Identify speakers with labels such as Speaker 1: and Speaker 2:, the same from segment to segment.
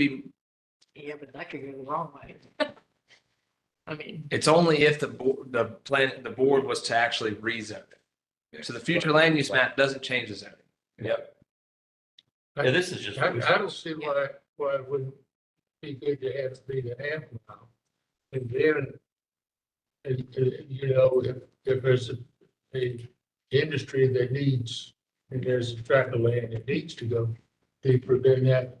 Speaker 1: be,
Speaker 2: Yeah, but that could go the wrong way. I mean,
Speaker 1: it's only if the board, the plan, the board was to actually rezone it. So the future land use map doesn't change the zoning. Yep.
Speaker 3: Yeah, this is just.
Speaker 4: I, I don't see why, why it wouldn't be good to have it be the half mile. And then, and, and, you know, if, if there's a, a industry that needs, and there's a tract of land that needs to go deeper, then that,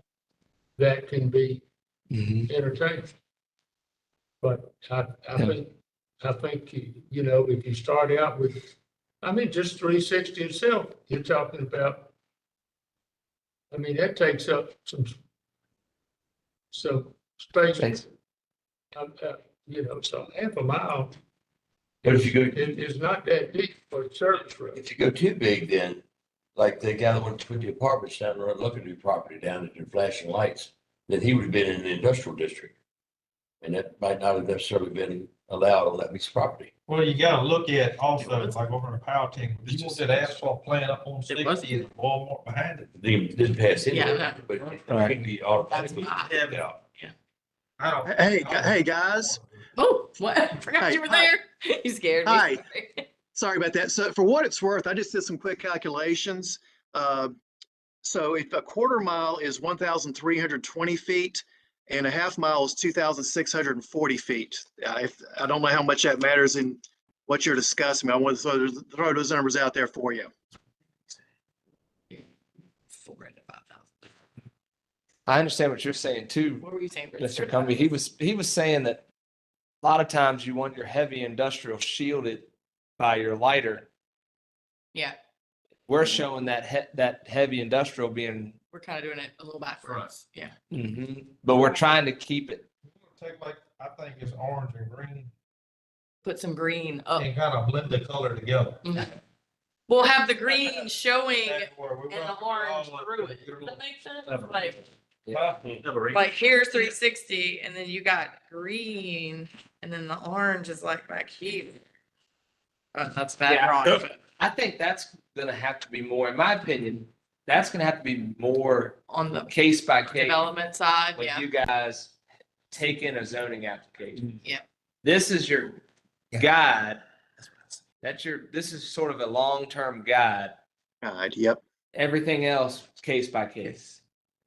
Speaker 4: that can be entertained. But I, I think, I think, you- you know, if you start out with, I mean, just three sixty itself, you're talking about. I mean, that takes up some, some space.
Speaker 1: Thanks.
Speaker 4: Um, uh, You know, so half a mile
Speaker 3: But if you go,
Speaker 4: is, is not that deep for a service road.
Speaker 3: if you go too big, then like the guy that went to put the apartments down, the road, looking at your property down at the flashing lights, then he would have been in the industrial district. And that might not have necessarily been allowed on that piece of property.
Speaker 5: Well, you gotta look at also, like over in Powhatan, you want that asphalt plant up on
Speaker 2: It wasn't.
Speaker 5: sixty and Walmart behind it.
Speaker 3: They didn't pass any,
Speaker 2: Yeah, that-
Speaker 3: but it could be automatically.
Speaker 2: ah.
Speaker 5: That's-
Speaker 3: Yeah.
Speaker 5: I don't.
Speaker 6: Hey, gu- hey, guys.
Speaker 2: oh, what? I forgot
Speaker 6: Hi,
Speaker 2: you were
Speaker 6: hi.
Speaker 2: there. You scared me.
Speaker 6: Hi. Sorry about that. So for what it's worth, I just did some quick calculations. Uh, So if a quarter mile is 1,320 feet and a half mile is 2,640 feet. Uh, if- I don't know how much that matters in what you're discussing. but I want to throw those- throw those numbers out there for you.
Speaker 2: Four to five thousand.
Speaker 1: I understand what you're saying too,
Speaker 2: What were you saying? Bruce?
Speaker 1: Mr. Cumbie. He was, he was saying that a lot of times you want your heavy industrial shielded by your lighter.
Speaker 2: Yeah,
Speaker 1: We're showing that he, that heavy industrial being,
Speaker 2: we're kind of doing it a little backwards. Yeah.
Speaker 1: but we're trying to keep it.
Speaker 5: Take like, I think it's orange and green
Speaker 2: Put some green up.
Speaker 5: and kind of blend the color together.
Speaker 2: Mhm. We'll have the green showing
Speaker 5: That's where we
Speaker 2: and the
Speaker 5: want it
Speaker 2: orange
Speaker 5: all up
Speaker 2: through
Speaker 5: to
Speaker 2: it.
Speaker 5: your
Speaker 2: Does
Speaker 5: little-
Speaker 2: that make sense?
Speaker 1: Clever.
Speaker 2: Like,
Speaker 5: Huh?
Speaker 2: like here's three sixty and then you got green and then the orange is like back here. Uh, That's bad
Speaker 1: Yeah.
Speaker 2: drawing. but
Speaker 1: I think that's gonna have to be more, in my opinion, that's gonna have to be more
Speaker 2: On the
Speaker 1: case by case.
Speaker 2: development side,
Speaker 1: when
Speaker 2: yeah.
Speaker 1: you guys take in a zoning application.
Speaker 2: Yep.
Speaker 1: This is your guide. That's your, this is sort of a long-term guide.
Speaker 6: All right, yep.
Speaker 1: Everything else, case by case.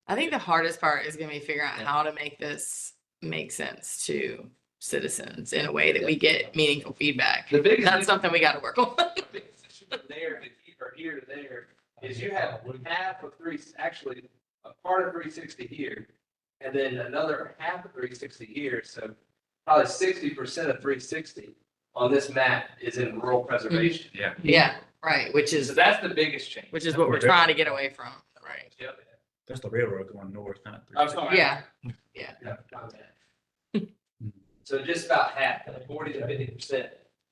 Speaker 2: I think the hardest part is gonna be figuring out
Speaker 1: Yeah.
Speaker 2: how to make this make sense to citizens in a way that we get meaningful feedback.
Speaker 1: The biggest.
Speaker 2: That's something we gotta work on.
Speaker 1: the biggest issue from There, to he- or here to there, is you have half of three, actually, a part of three sixty here, and then another half of three sixty here, so probably sixty percent of three sixty on this map is in rural preservation. Yeah.
Speaker 2: Yeah, right, which
Speaker 1: So
Speaker 2: is,
Speaker 1: that's the biggest change.
Speaker 2: Mm-hmm. which is what we're trying to get away from, right?
Speaker 1: Yep.
Speaker 7: That's the railroad going north, not.
Speaker 1: I'm sorry.
Speaker 2: Yeah,
Speaker 1: Yeah, my bad. So just about half, forty to fifty percent.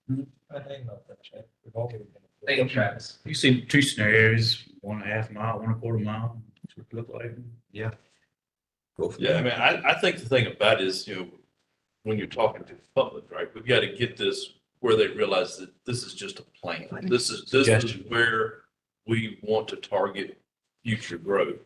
Speaker 5: I think about that, Chad. We've all been-
Speaker 1: Thank you, Travis.
Speaker 7: You see two scenarios, one and a half mile, one and a quarter mile, that's what it looked like.
Speaker 8: Yeah, I mean, I, I think the thing about is, you know, when you're talking to the public, right, we've got to get this where they realize that this is just a plan. This is, this is
Speaker 7: Suggestion.
Speaker 8: where we want to target future growth.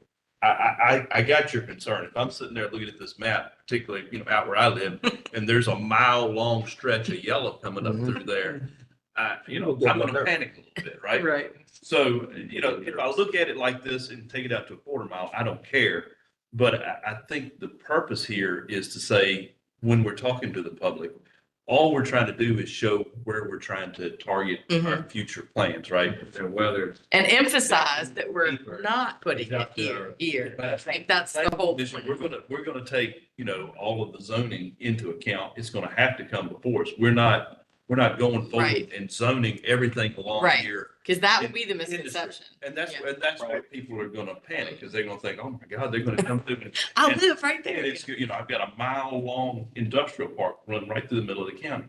Speaker 8: I, I, I, I got your concern. If I'm sitting there looking at this map, particularly, you know, out where I live, and there's a mile long stretch of yellow coming up through there, I, you know, I'm gonna panic a little bit, right?
Speaker 2: right.
Speaker 8: So, you know, if I look at it like this and take it out to a quarter mile, I don't care. But I, I think the purpose here is to say, when we're talking to the public, all we're trying to do is show where we're trying to target our
Speaker 2: Mm-hmm.
Speaker 8: future plans, right?
Speaker 3: Whether
Speaker 2: And emphasize that we're
Speaker 8: Deeper.
Speaker 2: not putting it
Speaker 8: Exactly.
Speaker 2: here, here. I
Speaker 8: But-
Speaker 2: think that's the whole
Speaker 8: This-
Speaker 2: point.
Speaker 8: We're gonna, we're gonna take, you know, all of the zoning into account. It's gonna have to come before us. We're not, we're not going forward
Speaker 2: Right.
Speaker 8: and zoning everything along
Speaker 2: Right.
Speaker 8: here.
Speaker 2: Because that
Speaker 8: in-
Speaker 2: would be the
Speaker 8: industry.
Speaker 2: misconception.
Speaker 8: And that's,
Speaker 2: Yeah.
Speaker 8: and that's where people are gonna panic, because they're gonna think, oh my God, they're gonna come through and
Speaker 2: I
Speaker 8: And-
Speaker 2: live right there.
Speaker 8: And it's, you know, I've got a mile long industrial park running right through the middle of the county.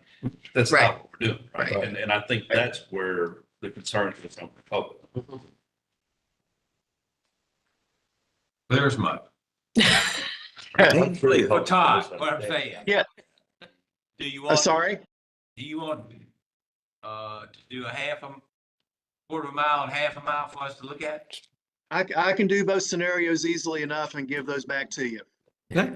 Speaker 8: That's
Speaker 2: Right.
Speaker 8: not what we're doing, right?
Speaker 2: Right.
Speaker 8: And, and I think that's where the concern is from the public.
Speaker 3: There's my.
Speaker 5: But Oh, Todd, what I'm saying.
Speaker 6: Yeah.
Speaker 5: Do you
Speaker 6: Uh,
Speaker 5: want, do
Speaker 6: Sorry?
Speaker 5: you want, uh, to do a half a, quarter of a mile and half a mile for us to look at?
Speaker 6: I, c- I can do both scenarios easily enough and give those back to you.
Speaker 5: Okay.